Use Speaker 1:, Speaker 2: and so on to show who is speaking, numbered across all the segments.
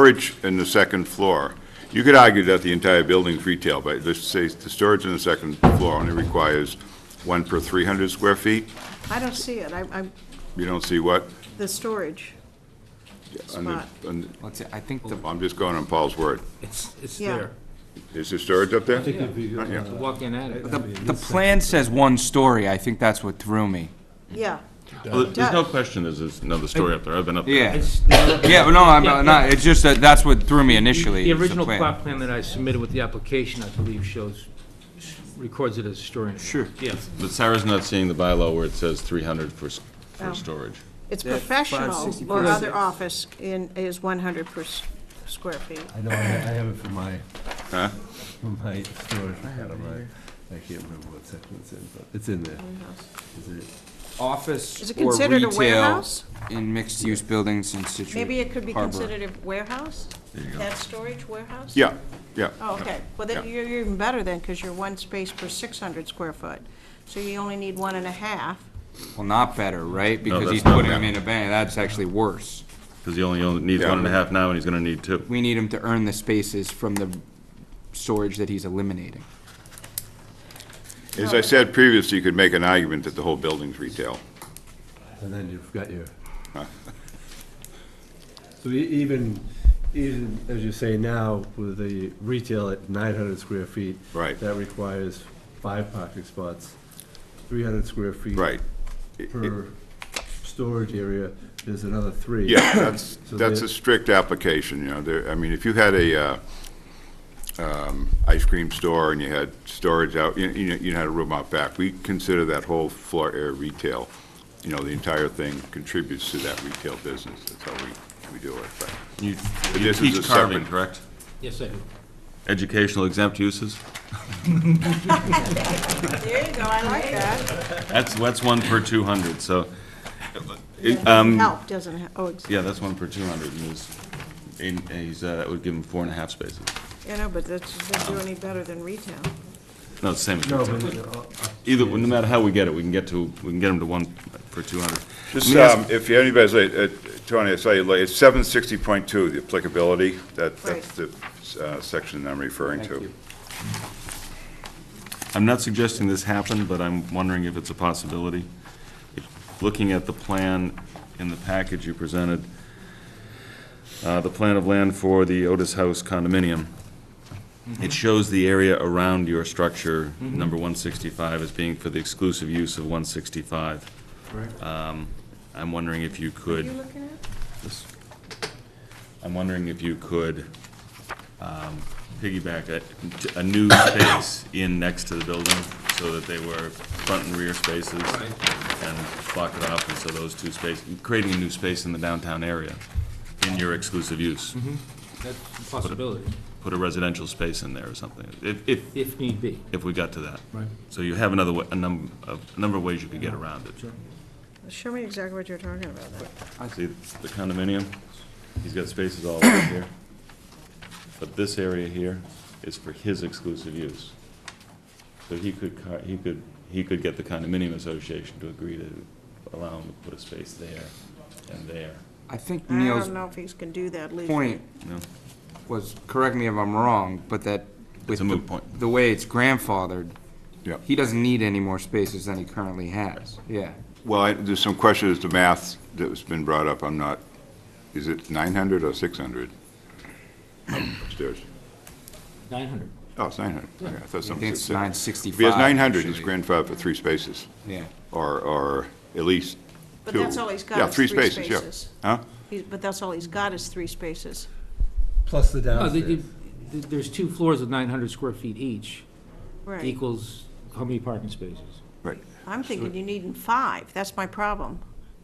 Speaker 1: Storage in the second floor, you could argue that the entire building's retail, but let's say the storage in the second floor only requires one per 300 square feet.
Speaker 2: I don't see it, I- I'm,
Speaker 1: You don't see what?
Speaker 2: the storage
Speaker 1: on the-
Speaker 2: spot,
Speaker 1: on the-
Speaker 3: Let's see, I think the,
Speaker 1: I'm just going on Paul's word.
Speaker 4: It's, it's
Speaker 2: Yeah.
Speaker 4: there.
Speaker 1: Is there storage up there?
Speaker 4: It's a Walk-in attic.
Speaker 3: the, the plan says one story, I think that's what threw me.
Speaker 2: yeah.
Speaker 5: Well, There's no
Speaker 2: Does.
Speaker 5: question there's there's another story up there. I've been up there.
Speaker 3: Yeah,
Speaker 4: It's not-
Speaker 3: yeah, but no, I'm
Speaker 4: Yeah,
Speaker 3: not,
Speaker 4: yeah.
Speaker 3: it's just that, that's what threw me initially.
Speaker 4: The
Speaker 3: is
Speaker 4: original
Speaker 3: plan.
Speaker 4: plot plan that I submitted with the application, I believe, shows, records it as a story.
Speaker 3: Sure.
Speaker 4: Yes.
Speaker 5: But Sarah's not seeing the bylaw where it says 300 for, s-
Speaker 2: Oh.
Speaker 5: for storage.
Speaker 2: It's
Speaker 3: Yeah,
Speaker 2: professional
Speaker 3: 560
Speaker 2: or
Speaker 3: per-
Speaker 2: other office in, is 100 per s- square feet.
Speaker 6: I know, I I have it for my,
Speaker 1: Huh?
Speaker 6: for my storage, I had it on my, I can't remember what section it's in, but it's in there. Is it-
Speaker 2: Is
Speaker 3: Office
Speaker 2: it
Speaker 3: or
Speaker 2: considered a
Speaker 3: retail
Speaker 2: warehouse?
Speaker 3: in mixed-use buildings in Situate
Speaker 2: Maybe it could be
Speaker 3: Harbor.
Speaker 2: considered a warehouse? That storage warehouse?
Speaker 1: Yeah, yeah.
Speaker 2: Oh, okay, well, then
Speaker 1: Yeah.
Speaker 2: you're you're even better then, because you're one space per 600 square foot, so you only need one and a half.
Speaker 3: Well, not better, right? Because
Speaker 5: that's
Speaker 3: he's
Speaker 5: not
Speaker 3: putting
Speaker 5: better.
Speaker 3: him in a bank, that's actually worse.
Speaker 5: Because he only only needs
Speaker 1: Yeah.
Speaker 5: one and a half now, and he's going to need two.
Speaker 3: We need him to earn the spaces from the storage that he's eliminating.
Speaker 1: As I said previously, you could make an argument that the whole building's retail.
Speaker 6: And then you've got your. So e- even, even as you say now, with the retail at nine hundred square feet.
Speaker 1: Right.
Speaker 6: That requires five parking spots, three hundred square feet.
Speaker 1: Right.
Speaker 6: Per storage area, there's another three.
Speaker 1: Yeah, that's,
Speaker 6: So
Speaker 1: that's
Speaker 6: the-
Speaker 1: a strict application, you know, there, I mean, if you had a, uh, um, ice cream store and you had storage out, you, you know, you had a room out back, we consider that whole floor area retail. You know, the entire thing contributes to that retail business, that's how we, we do it, but.
Speaker 5: You
Speaker 1: But
Speaker 5: you
Speaker 1: this is a
Speaker 5: teach carving,
Speaker 1: separate-
Speaker 5: correct?
Speaker 4: Yes, I do.
Speaker 5: Educational exempt uses?
Speaker 2: There you go, I like that.
Speaker 5: That's, that's one per 200, so,
Speaker 2: Help doesn't, ha- oh, it's-
Speaker 5: yeah, that's one per 200, and he's, and he's, uh, that would give him four and a half spaces.
Speaker 2: you know, but that's, doesn't do any better than retail.
Speaker 5: No, it's the same as
Speaker 6: No,
Speaker 5: retail.
Speaker 6: but, uh,
Speaker 5: Either, no matter how we get it, we can get to, we can get him to one for 200.
Speaker 1: Just,
Speaker 5: Let me ask-
Speaker 1: um, if anybody's, late, uh, Tony, I saw you, late. it's seven sixty point two, the applicability, that, that's the, uh, section I'm referring
Speaker 3: Thank
Speaker 1: to.
Speaker 3: you.
Speaker 5: I'm not suggesting this happen, but I'm wondering if it's a possibility. Looking at the plan in the package you presented, uh, the plan of land for the Otis House condominium, it shows the area around your structure, number 165, as being for the exclusive use of 165. Um, I'm wondering if you could...
Speaker 2: You looking at?
Speaker 5: This- I'm wondering if you could um, piggyback a, a new space in next to the building, so that they were front and rear spaces, and block it off, and so those two spaces, creating a new space in the downtown area, in your exclusive use.
Speaker 4: That's a possibility,
Speaker 5: Put a residential space in there or something, if, if,
Speaker 4: if need be.
Speaker 5: if we got to that.
Speaker 4: Right.
Speaker 5: So you have another, wa- a number, a number of ways you could get around it.
Speaker 2: Show me exactly what you're talking about then.
Speaker 5: See, the condominium, he's got spaces all over here. But this area here is for his exclusive use. So he could, car- he could, he could get the condominium association to agree to allow him to put a space there and there.
Speaker 3: I think
Speaker 2: I
Speaker 3: Neil's
Speaker 2: don't know if he's can do that legally.
Speaker 3: point
Speaker 5: No.
Speaker 3: was, correct me if I'm wrong, but that with
Speaker 5: It's
Speaker 3: the-
Speaker 5: a moot point.
Speaker 3: The way it's grandfathered,
Speaker 1: Yeah.
Speaker 3: he doesn't need any more spaces than he currently has, yeah.
Speaker 1: Well, I- there's some question as to math that's been brought up, I'm not, is it 900 or 600 upstairs?
Speaker 4: 900.
Speaker 1: Oh, it's 900, okay, I thought
Speaker 3: I
Speaker 1: something
Speaker 3: think
Speaker 1: said
Speaker 3: it's
Speaker 1: 600.
Speaker 3: 965.
Speaker 1: If he has 900, he's
Speaker 3: actually.
Speaker 1: grandfathered for three spaces,
Speaker 3: Yeah.
Speaker 1: or, or at least two.
Speaker 2: But that's all he's got
Speaker 1: Yeah,
Speaker 2: is
Speaker 1: three
Speaker 2: three
Speaker 1: spaces,
Speaker 2: spaces.
Speaker 1: yeah. Huh?
Speaker 2: He's- But that's all he's got is three spaces.
Speaker 6: Plus the
Speaker 4: No, they-
Speaker 6: downstairs.
Speaker 4: they- There's two floors of 900 square feet each,
Speaker 2: Right.
Speaker 4: equals how many parking spaces?
Speaker 1: Right.
Speaker 2: I'm thinking you need five. That's my problem.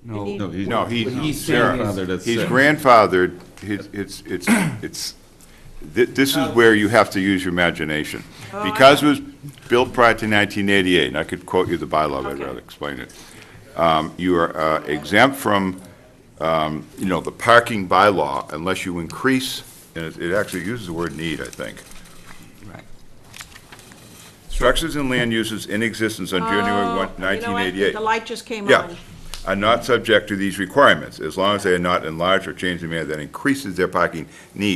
Speaker 2: You
Speaker 3: No.
Speaker 2: need-
Speaker 5: No, he's.
Speaker 1: No, he's,
Speaker 4: But he's
Speaker 1: Sarah,
Speaker 4: saying
Speaker 5: is-
Speaker 1: he's
Speaker 5: That's-
Speaker 1: grandfathered, He's- it's, it's, it's, thi- this is where you have to use your imagination.
Speaker 2: Oh,
Speaker 1: Because it was built prior to 1988, and I could quote you the bylaw, but I'd
Speaker 2: Okay.
Speaker 1: rather explain it. Um, You are uh, exempt from, um, you know, the parking bylaw unless you increase, and it- it actually uses the word need, I think.
Speaker 3: Right.
Speaker 1: Structures and land uses in existence on January 1,
Speaker 2: Oh, You know what?
Speaker 1: 1988.
Speaker 2: The light just came
Speaker 1: Yeah.
Speaker 2: on.
Speaker 1: are not subject to these requirements, as long as they are not enlarged or changed in a manner that increases their parking needs